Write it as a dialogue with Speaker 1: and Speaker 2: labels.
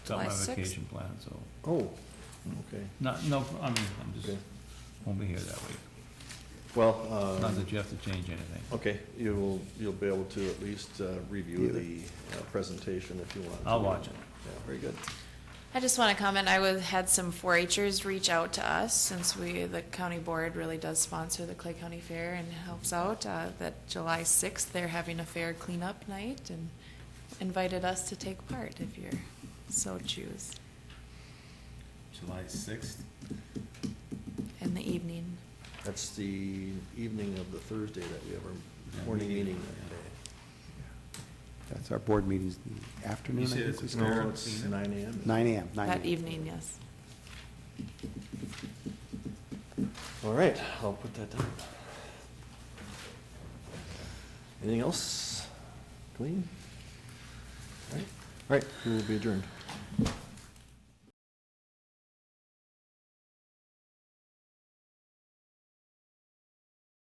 Speaker 1: July
Speaker 2: Don't have a
Speaker 1: 6th?
Speaker 2: vacation plan, so,
Speaker 3: Oh, okay.
Speaker 2: not, no, I mean, I'm just,
Speaker 3: Okay.
Speaker 2: won't be here that week.
Speaker 3: Well,
Speaker 2: Not
Speaker 3: um,
Speaker 2: that you have to change anything.
Speaker 3: okay, you will, you'll be able to at least uh, review the uh, presentation if you want. to.
Speaker 2: I'll watch it.
Speaker 3: Yeah, very good.
Speaker 1: I just want to comment, I was, had some 4-Hers reach out to us, since we, the county board really does sponsor the Clay County Fair and helps out, uh, that July 6th, they're having a fair cleanup night, and invited us to take part if you're so choose,
Speaker 4: July sixth?
Speaker 1: in the evening.
Speaker 3: That's the evening of the Thursday that we have
Speaker 4: Yeah,
Speaker 3: our morning
Speaker 4: meeting,
Speaker 3: meeting
Speaker 4: yeah.
Speaker 3: that
Speaker 5: That's our board meetings in the afternoon, I
Speaker 4: You said it's
Speaker 5: think
Speaker 4: a
Speaker 5: we
Speaker 3: day.
Speaker 5: start.
Speaker 4: fair-
Speaker 3: No, it's
Speaker 4: cleanup?
Speaker 3: nine AM.
Speaker 5: Nine AM, nine AM.
Speaker 1: That evening, yes.
Speaker 3: All right, I'll put that down. Anything else? Clean? All right, we will be adjourned.